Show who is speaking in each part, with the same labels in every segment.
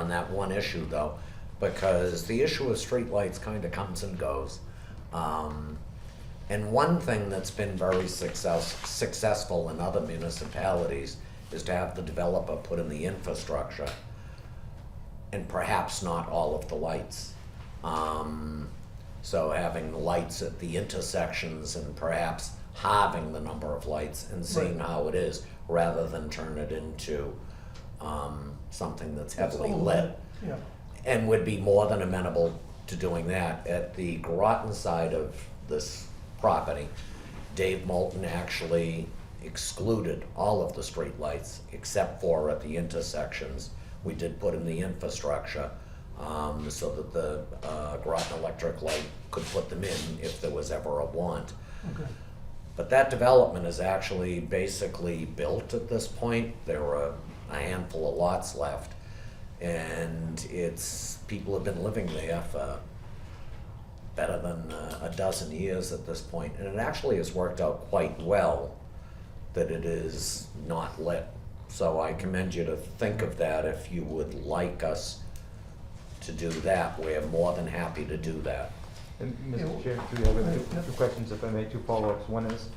Speaker 1: that one issue though, because the issue of streetlights kind of comes and goes. Um, and one thing that's been very success, successful in other municipalities is to have the developer put in the infrastructure and perhaps not all of the lights. Um, so having the lights at the intersections and perhaps halving the number of lights and seeing how it is rather than turn it into um, something that's heavily lit
Speaker 2: Yeah,
Speaker 1: and would be more than amenable to doing that. At the Groton side of this property, Dave Moulton actually excluded all of the streetlights except for at the intersections. We did put in the infrastructure um, so that the uh, Groton Electric Light could put them in if there was ever a want.
Speaker 2: okay.
Speaker 1: But that development is actually basically built at this point. There are a handful of lots left. And it's, people have been living there for better than uh, a dozen years at this point. And it actually has worked out quite well that it is not lit. So I commend you to think of that if you would like us to do that. We're more than happy to do that.
Speaker 3: And
Speaker 2: Yeah.
Speaker 3: Mr. Chair, do we have two,
Speaker 2: Right, yeah.
Speaker 3: two questions, if I may, two follow-ups? One is,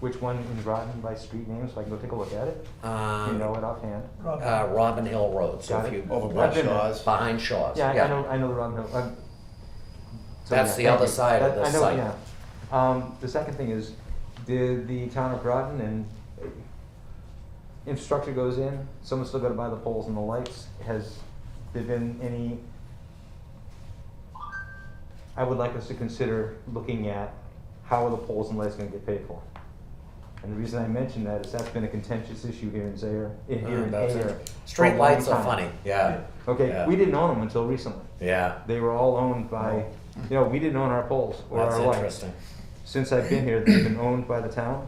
Speaker 3: which one in Groton by street name, so I can go take a look at it? Do you
Speaker 1: Um,
Speaker 3: know it offhand?
Speaker 2: Rob,
Speaker 1: Uh, Robin Hill Road, so
Speaker 3: Got
Speaker 1: if
Speaker 3: it.
Speaker 1: you.
Speaker 4: Over
Speaker 3: I've
Speaker 4: by
Speaker 3: been there.
Speaker 4: Shaw's.
Speaker 1: Behind Shaw's,
Speaker 3: Yeah, I- I know,
Speaker 1: yeah.
Speaker 3: I know the wrong, note. I'm. so,
Speaker 1: That's
Speaker 3: yeah,
Speaker 1: the
Speaker 3: thank
Speaker 1: other
Speaker 3: you.
Speaker 1: side of
Speaker 3: That-
Speaker 1: the
Speaker 3: I know,
Speaker 1: site.
Speaker 3: yeah. Um, the second thing is, did the town of Groton and uh, infrastructure goes in, someone's still gotta buy the poles and the lights, has there been any? I would like us to consider looking at how are the poles and lights gonna get paid for? And the reason I mention that is that's been a contentious issue here in Zaire, in
Speaker 1: Mm,
Speaker 3: here in
Speaker 1: Uh, That's it.
Speaker 3: Ayer. for a
Speaker 1: Street
Speaker 3: long
Speaker 1: lights are
Speaker 3: time.
Speaker 1: funny, yeah,
Speaker 3: Okay,
Speaker 1: Yeah.
Speaker 3: we didn't own them until recently.
Speaker 1: yeah,
Speaker 3: They were all owned by, you know, we didn't own our poles or
Speaker 1: Oh. that's
Speaker 3: our lights.
Speaker 1: interesting,
Speaker 3: Since I've been here, they've been owned by the town.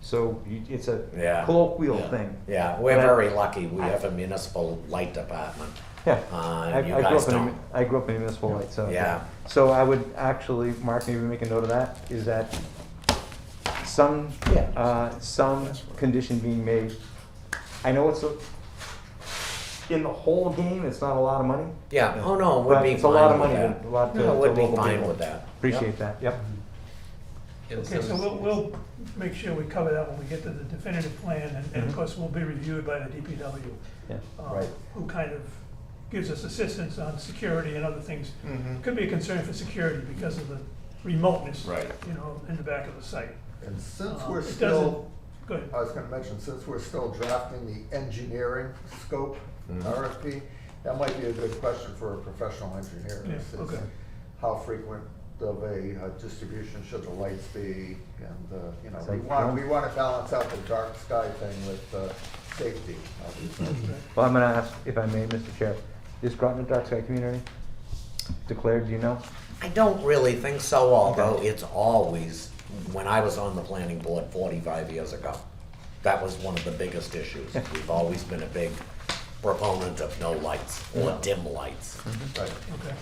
Speaker 3: So you, it's a
Speaker 1: Yeah.
Speaker 3: colloquial
Speaker 4: Yeah.
Speaker 3: thing.
Speaker 1: yeah, we're
Speaker 3: But I-
Speaker 1: very lucky, we have a municipal light department,
Speaker 3: Yeah.
Speaker 1: Uh,
Speaker 3: I,
Speaker 1: you
Speaker 3: I grew
Speaker 1: guys
Speaker 3: up in a, mu-
Speaker 1: don't.
Speaker 3: I grew up in a municipal light, so.
Speaker 1: Yeah.
Speaker 3: So I would actually, Mark, maybe make a note of that, is that some,
Speaker 1: Yeah.
Speaker 3: uh, some condition being made. I know it's a, in the whole game, it's not a lot of money,
Speaker 1: yeah, oh no, it would
Speaker 3: but
Speaker 1: be
Speaker 3: it's a lot
Speaker 1: fine with
Speaker 3: of money, to-
Speaker 1: that.
Speaker 3: a lot to
Speaker 1: No,
Speaker 3: to
Speaker 1: it would be
Speaker 3: local
Speaker 1: fine
Speaker 3: people.
Speaker 1: with that,
Speaker 3: Appreciate that, yep.
Speaker 1: Mm-hmm.
Speaker 2: okay, so we'll, we'll make sure we cover that when we get to the definitive plan, and, and of
Speaker 1: Mm-hmm.
Speaker 3: Mhm.
Speaker 2: course, we'll be reviewed by the DPW.
Speaker 3: Yeah.
Speaker 2: um,
Speaker 3: Right.
Speaker 2: Who kind of gives us assistance on security and other things.
Speaker 4: Mhm.
Speaker 2: Could be a concern for security because of the remoteness.
Speaker 4: Right.
Speaker 2: You know, in the back of the site.
Speaker 5: And since
Speaker 2: Um,
Speaker 5: we're
Speaker 2: it doesn't-
Speaker 5: still,
Speaker 2: Go ahead.
Speaker 5: I was gonna mention, since we're still drafting the engineering scope RFP, that might be a good question for a professional engineer.
Speaker 2: Yeah,
Speaker 5: is- is
Speaker 2: okay.
Speaker 5: How frequent of a uh, distribution should the lights be? And, uh, you know,
Speaker 3: So
Speaker 5: we want,
Speaker 3: don't-
Speaker 5: we want to balance out the dark sky thing with uh, safety, obviously.
Speaker 3: Well, I'm gonna ask, if I may, Mr. Chair, is Groton a dark sky community declared, do you know?
Speaker 1: I don't really think so, although
Speaker 3: Okay.
Speaker 1: it's always, when I was on the planning board forty-five years ago, that was one of the biggest issues, we've always been a big proponent of no lights, or dim lights.
Speaker 4: Mm-hmm.
Speaker 5: Right.
Speaker 2: Okay.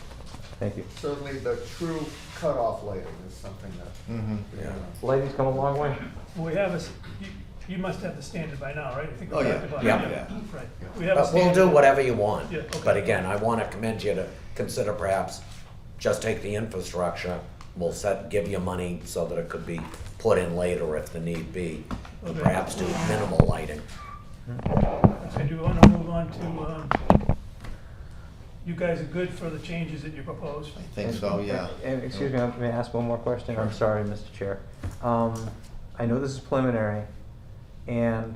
Speaker 3: Thank you.
Speaker 5: Certainly, the true cutoff lighting is something that, you
Speaker 1: Yeah.
Speaker 5: know,
Speaker 3: Lighting's come a long way.
Speaker 2: Well, we have a, s- you, you must have the standard by now, right? I think we
Speaker 4: Oh, yeah.
Speaker 2: talked about it.
Speaker 1: Yeah.
Speaker 2: Right. We have a
Speaker 1: But we'll
Speaker 2: standard.
Speaker 1: do whatever you want.
Speaker 2: Yeah, okay.
Speaker 1: But again, I want to commend you to consider perhaps just take the infrastructure, we'll set, give you money so that it could be put in later if the need be, and
Speaker 2: Okay.
Speaker 1: perhaps do minimal lighting.
Speaker 2: I do want to move on to, um, you guys are good for the changes that you proposed?
Speaker 4: I think so, yeah.
Speaker 3: And, excuse me, I may I ask one more question? I'm sorry, Mr. Chair. Um, I know this is preliminary, and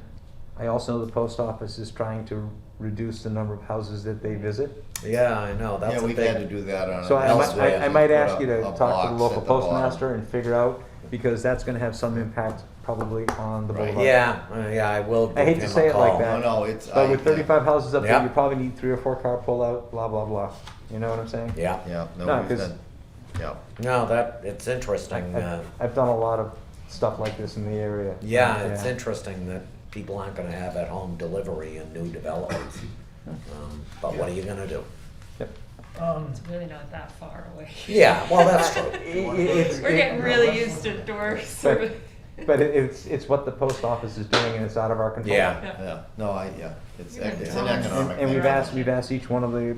Speaker 3: I also know the post office is trying to reduce the number of houses that they visit.
Speaker 1: Yeah, I know, that's
Speaker 4: Yeah,
Speaker 1: a
Speaker 4: we've had to
Speaker 1: big,
Speaker 4: do that on.
Speaker 3: So I might,
Speaker 4: elsewhere.
Speaker 3: I- I might
Speaker 4: Put
Speaker 3: ask
Speaker 4: up
Speaker 3: you to
Speaker 4: a
Speaker 3: talk to the
Speaker 4: box
Speaker 3: local
Speaker 4: at the bottom.
Speaker 3: postmaster and figure out, because that's gonna have some impact probably on the
Speaker 4: Right.
Speaker 3: boulevard.
Speaker 1: yeah, uh, yeah, I will give
Speaker 3: I hate to
Speaker 1: him
Speaker 3: say
Speaker 1: a
Speaker 3: it like
Speaker 1: call.
Speaker 3: that.
Speaker 4: No, no, it's.
Speaker 3: But
Speaker 4: I-
Speaker 3: with thirty-five houses up there,
Speaker 1: Yeah.
Speaker 3: you probably need three or four car pullout, blah, blah, blah. You know what I'm saying?
Speaker 1: Yeah,
Speaker 4: Yeah,
Speaker 3: No,
Speaker 4: no, we've
Speaker 3: 'cause-
Speaker 4: done, yeah.
Speaker 1: no, that, it's interesting, uh,
Speaker 3: I've, I've done a lot of stuff like this in the area.
Speaker 1: yeah, it's interesting that people aren't gonna have at-home delivery in new developments. Um, But what are you gonna do?
Speaker 2: Um,
Speaker 6: It's really not that far away.
Speaker 1: Yeah, well, that's true.
Speaker 3: It- it- it's-
Speaker 6: We're
Speaker 3: it-
Speaker 6: getting really used to door
Speaker 3: But,
Speaker 6: service.
Speaker 3: but it- it's, it's what the post office is doing and it's out of our control.
Speaker 1: Yeah.
Speaker 4: Yeah, no, I, yeah, it's,
Speaker 6: You're in
Speaker 4: it's
Speaker 6: town.
Speaker 4: an
Speaker 3: And
Speaker 4: economic.
Speaker 3: and we've
Speaker 4: thing.
Speaker 3: asked, we've asked each one of the